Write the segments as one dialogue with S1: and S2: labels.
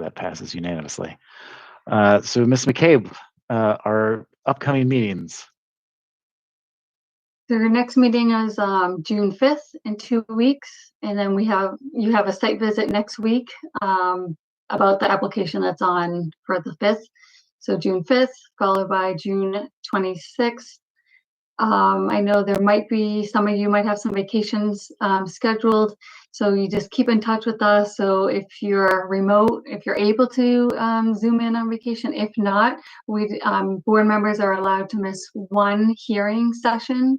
S1: that passes unanimously. Uh, so, Ms. McCabe, uh, our upcoming meetings.
S2: So Your next meeting is um, June 5th in two weeks, and then we have, you have a site visit next week um, about the application that's on for the 5th. So June 5th, followed by June 26th. Um, I know there might be, some of you might have some vacations um, scheduled, so you just keep in touch with us. So if you're remote, if you're able to um, Zoom in on vacation, if not, we, um, board members are allowed to miss one hearing session.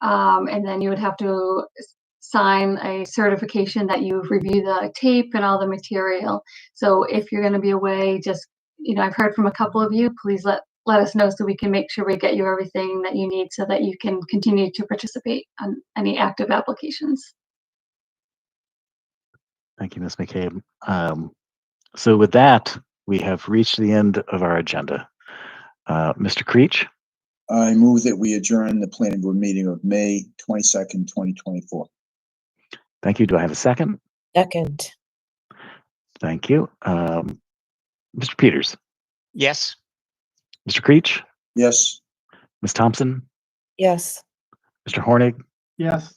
S2: Um, and then you would have to s- sign a certification that you've reviewed the tape and all the material. So if you're gonna be away, just, you know, I've heard from a couple of you, please let, let us know so we can make sure we get you everything that you need so that you can continue to participate on any active applications.
S1: Thank you, Ms. McCabe. Um, so, with that, we have reached the end of our agenda. Uh, Mr. Creech,
S3: I move that we adjourn the planning board meeting of May twenty-second, twenty twenty-four.
S1: thank you. Do I have a second?
S4: Second,
S1: Thank you. Um, Mr. Peters,
S5: Yes.
S1: Mr. Creech,
S3: Yes,
S1: Ms. Thompson,
S4: yes.
S1: Mr. Hornig,
S6: Yes.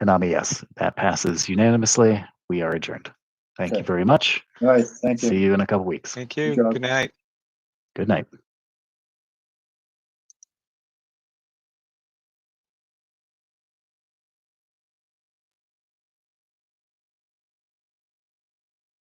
S1: and I'm a yes. That passes unanimously. We are adjourned. Thank you
S3: Okay.
S1: very much.
S3: all right, thank you.
S1: See you in a couple weeks.
S5: Thank you.
S3: job.
S5: Good night.
S1: Good night.